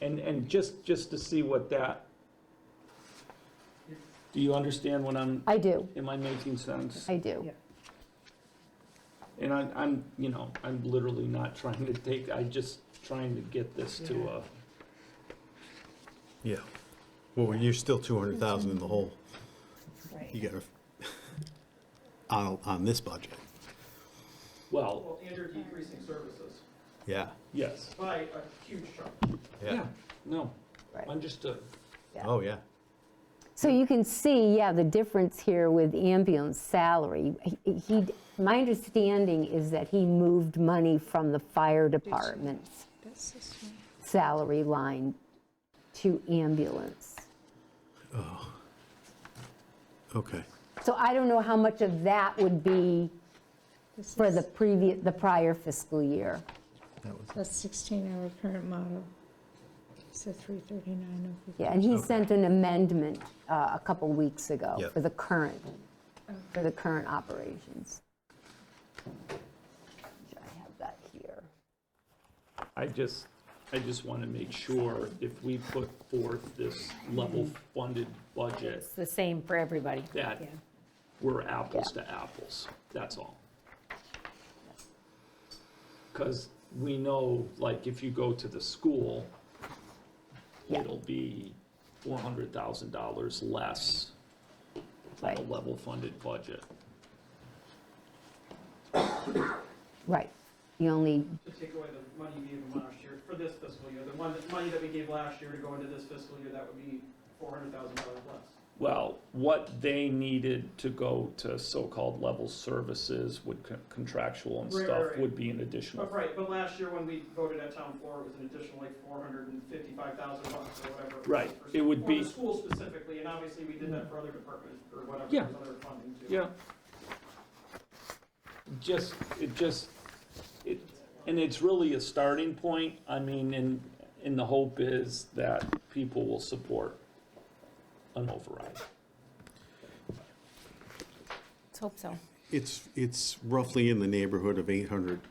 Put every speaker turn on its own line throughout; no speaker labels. And, and just, just to see what that, do you understand what I'm,
I do,
am I making sense?
I do.
And I'm, I'm, you know, I'm literally not trying to take, I'm just trying to get this to a,
Yeah. Well, you're still 200,000 in the hole. You
Right.
got to, on, on this budget.
well,
Well, and you're decreasing services
Yeah,
yes.
by a huge chunk.
yeah.
No,
Right.
understood.
Yeah.
Oh, yeah.
So you can see, yeah, the difference here with ambulance salary. He- He, my understanding is that he moved money from the fire department's
That's this one.
salary line to ambulance.
Okay.
So I don't know how much of that would be
This
for
is-
the previous, the prior fiscal year.
That was,
That's 16-hour current model. So oh 339 over.
Yeah, and he sent an amendment uh, a couple weeks ago
Yep.
for the current, for the current operations. I have that here.
I just, I just want to make sure if we put forth this level funded budget,
It's the same for everybody.
that we're apples to apples, that's all. Because we know, like, if you go to the school,
Yeah.
it'll be $400,000 less than a
Right,
level funded budget.
right. The only,
To take away the money we gave them last year, for this fiscal year, the one, the money that we gave last year to go into this fiscal year, that would be four hundred thousand dollars less.
Well, what they needed to go to so-called level services with con- contractual and
Right, right,
stuff
right.
would be an additional
But right, but last year when we voted at town floor, it was an additional like four hundred and fifty-five thousand bucks or whatever. was
Right,
for-
it would be-
For the school specifically, and obviously we did that for other departments or whatever,
Yeah.
there's other funding too.
Yeah. Just, it just, it, and it's really a starting point, I mean, and, and the hope is that people will support an override.
Let's hope so.
it's, it's roughly in the neighborhood of $850, is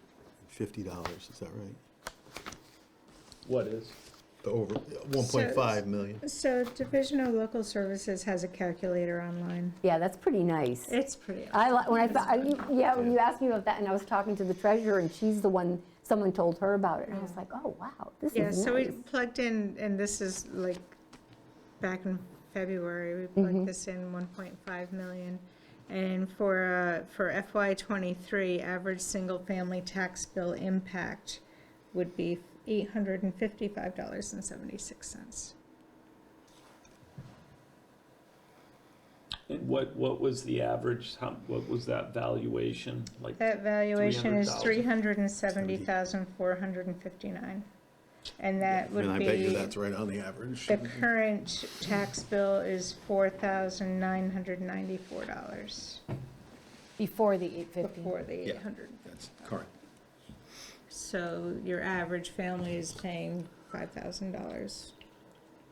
that right?
What is?
The over, 1.5 million.
So Division of Local Services has a calculator online.
yeah, that's pretty nice.
It's pretty.
I, li- when I, thought- I- you- yeah, when you asked me about that, and I was talking to the treasurer, and she's the one, someone told her about it, and I was like, oh, wow, this
Yeah,
is
so we
nice.
plugged in, and this is like, back in February, we plugged this in 1.5 million. And for, uh, for FY '23, average single-family tax bill impact would be $855.76.
And what, what was the average, how, what was that valuation, like,
That valuation is
370,000.
$370,459. And that would be.
And I bet you that's right on the average.
The current tax bill is four thousand nine hundred ninety-four dollars
Before the 850.
before the
Yeah.
eight hundred.
That's correct.
So your average family is paying five thousand dollars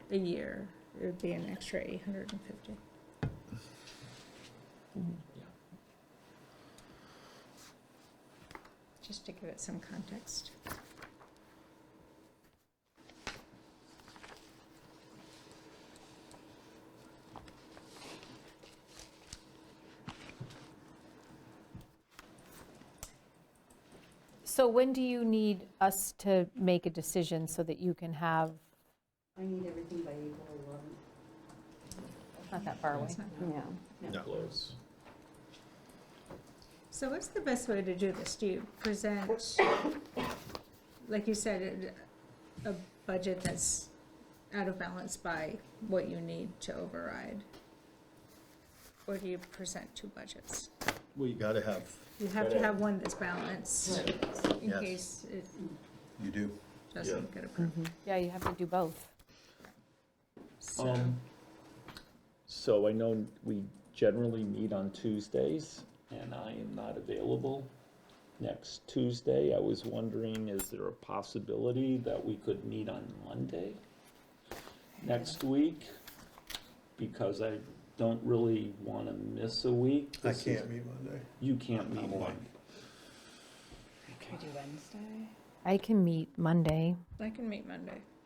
a year. It would be an extra eight hundred and fifty. Just to give it some context.
So when do you need us to make a decision so that you can have,
I need everything by April eleventh.
not that far away?
It's not-
Yeah.
close?
So what's the best way to do this? Do you present, like you said, a a budget that's out of balance by what you need to override? Or do you present two budgets?
Well, you got to have,
You have to have one that's balanced in
Yes.
case it
you do.
doesn't get approved.
Yeah, you have to do both.
So-
Um, so I know we generally meet on Tuesdays, and I am not available next Tuesday. I was wondering, is there a possibility that we could meet on Monday next week? Because I don't really want to miss a week.
I
This is-
can't meet Monday.
You can't meet
away.
Monday.
Could do Wednesday?
I can meet Monday.
I can meet Monday.